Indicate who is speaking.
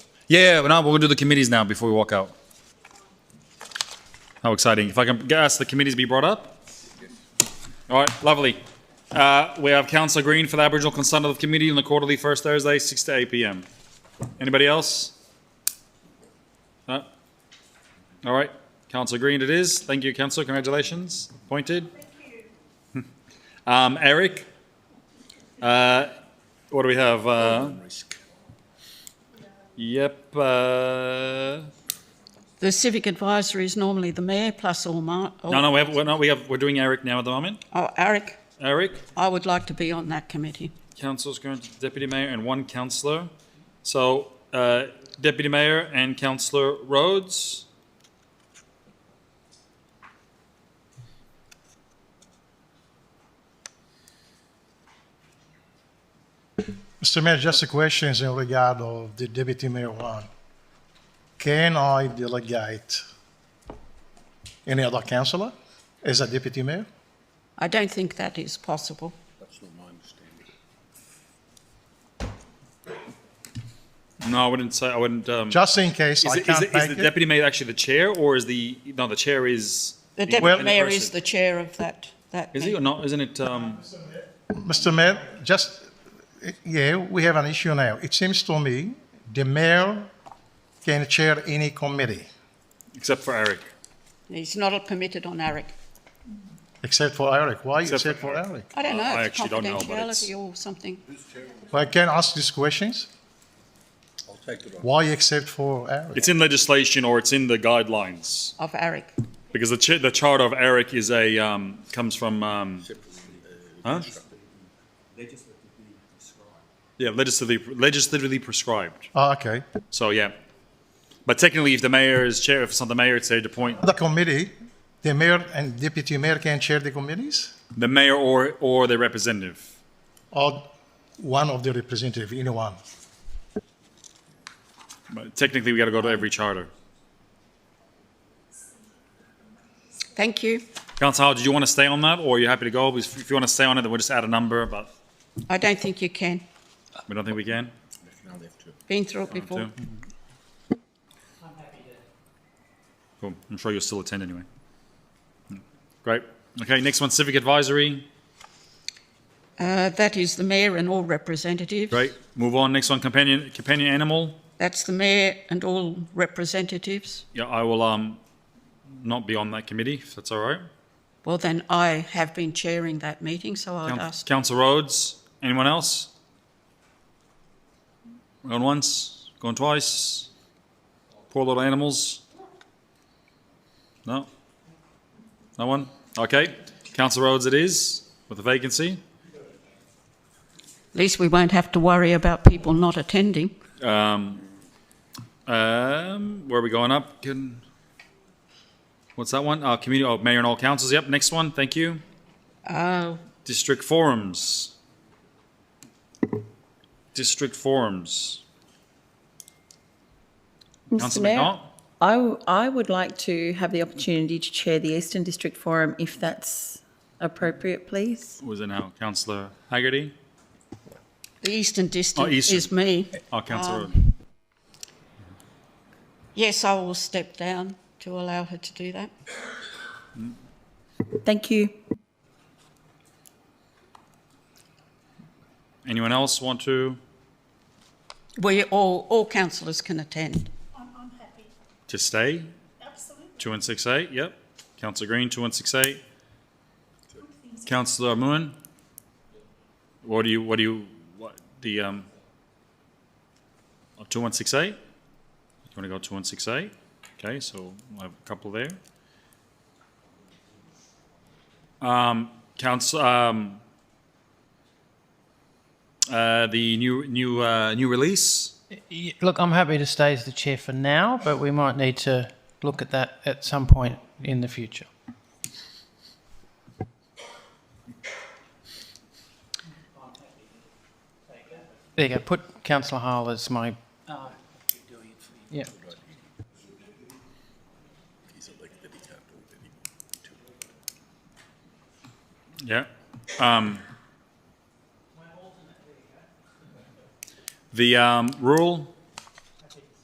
Speaker 1: Yeah, no, we'll do the committees now before we walk out. How exciting. If I can ask the committees to be brought up? All right, lovely. Uh, We have Councillor Green for the Aboriginal Consent of the Committee on the quarterly first Thursday, 6 to 8 PM. Anybody else? No? All right, Councillor Green it is. Thank you, councillor. Congratulations, appointed. Um, Eric? Uh, What do we have? Uh, Yep, uh,
Speaker 2: The civic advisor is normally the mayor plus all my.
Speaker 1: no, no, we have, we're not, we have, we're doing Eric now at the moment.
Speaker 2: Oh, Eric,
Speaker 1: Eric,
Speaker 2: I would like to be on that committee.
Speaker 1: council's current deputy mayor and one councillor. So, uh, deputy mayor and councillor Rhodes.
Speaker 3: Mr. Mayor, just a question in regard of the deputy mayor one. Can I delegate any other councillor as a deputy mayor?
Speaker 2: I don't think that is possible.
Speaker 1: No, I wouldn't say, I wouldn't, um, is,
Speaker 3: Just in case I
Speaker 1: it- is,
Speaker 3: can't
Speaker 1: it- is the
Speaker 3: make it.
Speaker 1: deputy mayor actually the chair or is the, no, the chair is,
Speaker 2: The deputy
Speaker 3: Well-
Speaker 2: mayor is
Speaker 1: Person.
Speaker 2: the chair of that. That
Speaker 1: is he or not? Isn't it, um,
Speaker 3: Mr. Mayor, just, yeah, we have an issue now. It seems to me the mayor can chair any committee,
Speaker 1: except for Eric?
Speaker 2: meeting. He's not permitted on Eric.
Speaker 3: except for Eric. Why
Speaker 1: Except
Speaker 3: except
Speaker 1: for
Speaker 3: for Eric?
Speaker 2: I don't know.
Speaker 1: Uh, I
Speaker 2: it's
Speaker 1: actually don't know, but it's-
Speaker 2: confidentiality or something.
Speaker 3: Well, I can ask these questions.
Speaker 4: I'll take it on.
Speaker 3: Why except for Eric?
Speaker 1: It's in legislation or it's in the guidelines
Speaker 2: Of Eric.
Speaker 1: because the cha- the charter of Eric is a, um, comes from, um, huh?
Speaker 4: Legislatively described.
Speaker 1: Yeah, legislatively, legislatively prescribed.
Speaker 3: Ah, okay.
Speaker 1: So yeah, but technically, if the mayor is chair, if it's not the mayor, it's their appoint
Speaker 3: The committee, the mayor and deputy mayor can chair the committees?
Speaker 1: the mayor or or their representative.
Speaker 3: or one of the representative, anyone.
Speaker 1: But technically, we got to go to every charter.
Speaker 2: Thank you.
Speaker 1: Councillor, Howard, did you want to stay on that, or are you happy to go? Because if you want to stay on it, then we'll just add a number, but
Speaker 2: I don't think you can.
Speaker 1: we don't think we can.
Speaker 4: Now they have to.
Speaker 2: Been through it before.
Speaker 1: Two. Cool. I'm sure you'll still attend anyway. Great. Okay. Next one, civic advisory.
Speaker 2: Uh, that is the mayor and all representatives.
Speaker 1: Great. Move on. Next one, companion companion animal.
Speaker 2: That's the mayor and all representatives.
Speaker 1: Yeah, I will um not be on that committee if that's all right.
Speaker 2: Well, then I have been chairing that meeting, so I'd ask.
Speaker 1: Council Rhodes, anyone else? Gone once, gone twice. Poor little animals. No? No one? Okay. Council Rhodes it is, with a vacancy.
Speaker 2: At least we won't have to worry about people not attending.
Speaker 1: Um, um, where are we going up? Can, what's that one? Uh, community, oh, mayor and all councils. Yep, next one. Thank you.
Speaker 2: Oh,
Speaker 1: District forums. District forums.
Speaker 5: Mr
Speaker 1: Councillor
Speaker 5: Mayor,
Speaker 1: McNaught?
Speaker 5: I, w- I would like to have the opportunity to chair the Eastern District Forum if that's appropriate, please.
Speaker 1: Was it now Councillor Haggerty?
Speaker 2: the Eastern District
Speaker 1: Oh, Eastern.
Speaker 2: is me.
Speaker 1: Oh, Councillor.
Speaker 2: Yes, I will step down to allow her to do that.
Speaker 5: Thank you.
Speaker 1: Anyone else want to?
Speaker 2: We all, all councillors can attend.
Speaker 6: I'm, I'm happy,
Speaker 1: To stay?
Speaker 6: absolutely.
Speaker 1: 2168, yep. Councillor Green, 2168. Councillor Moon? What do you, what do you, what, the, um, oh, 2168? You want to go 2168? Okay, so we'll have a couple there. Um, council, um, uh, the new, new, uh, new release?
Speaker 7: Y- Look, I'm happy to stay as the chair for now, but we might need to look at that at some point in the future. There you go. Put councillor Hall as my. Yeah.
Speaker 4: He's elected, he can't do it anymore.
Speaker 1: Yeah. Um, the um, rural